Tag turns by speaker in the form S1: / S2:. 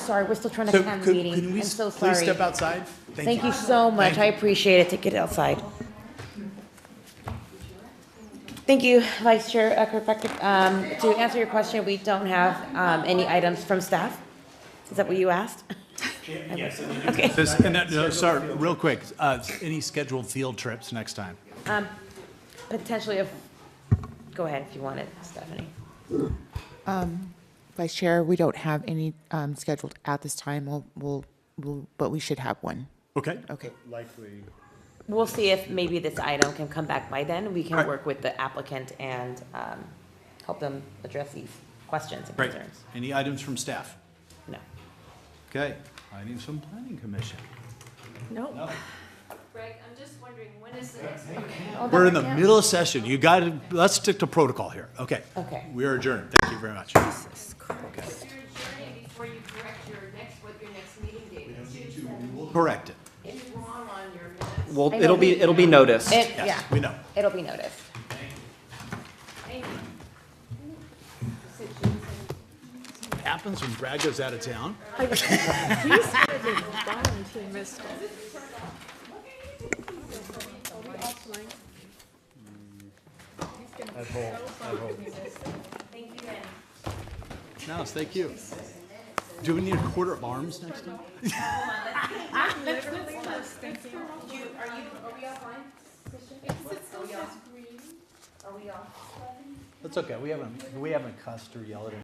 S1: Sorry, we're still trying to
S2: So
S1: attend the
S2: could-
S1: meeting.
S2: can we
S1: I'm so
S2: s- Please
S1: sorry.
S2: step outside?
S1: Thank you so much. I
S2: Thank
S1: appreciate it. Take it outside. Thank you, Vice Chair uh, Kirkpatrick. Um, to answer your question, we don't have, um, any items from staff. Is that what you asked? Okay.
S2: This- and that- no, sorry, real quick, uh, any scheduled field trips next time?
S1: Potentially, if, go ahead if you want it, Stephanie.
S3: Vice Chair, we don't have any um, scheduled at this time. We'll, we'll, we'll, but we should have one.
S2: Okay,
S3: Okay.
S4: likely.
S1: We'll see if maybe this item can come back by then. We can
S2: Alright.
S1: work with the applicant and, um, help them address these questions and
S2: great.
S1: concerns.
S2: Any items from staff?
S1: No.
S2: Okay, items from planning commission?
S1: No.
S5: Greg, I'm just wondering, when is the next?
S1: Oh,
S2: We're in the middle of session, you got to, let's stick to protocol here, okay?
S1: Okay.
S2: We are adjourned, thank you very much.
S5: Because you're adjourning before you correct your next, what your next meeting date is.
S2: Correct it.
S5: It's wrong on your minutes.
S6: Well,
S1: I know
S6: it'll be,
S1: we-
S6: it'll be noticed.
S1: It,
S2: Yes,
S1: yeah.
S2: we know.
S1: It'll be noticed.
S5: Thank you.
S2: Happens when Brad goes out of town. No, it's thank you. Do we need a quarter of arms next time? That's okay, we haven't, we haven't cussed or yelled at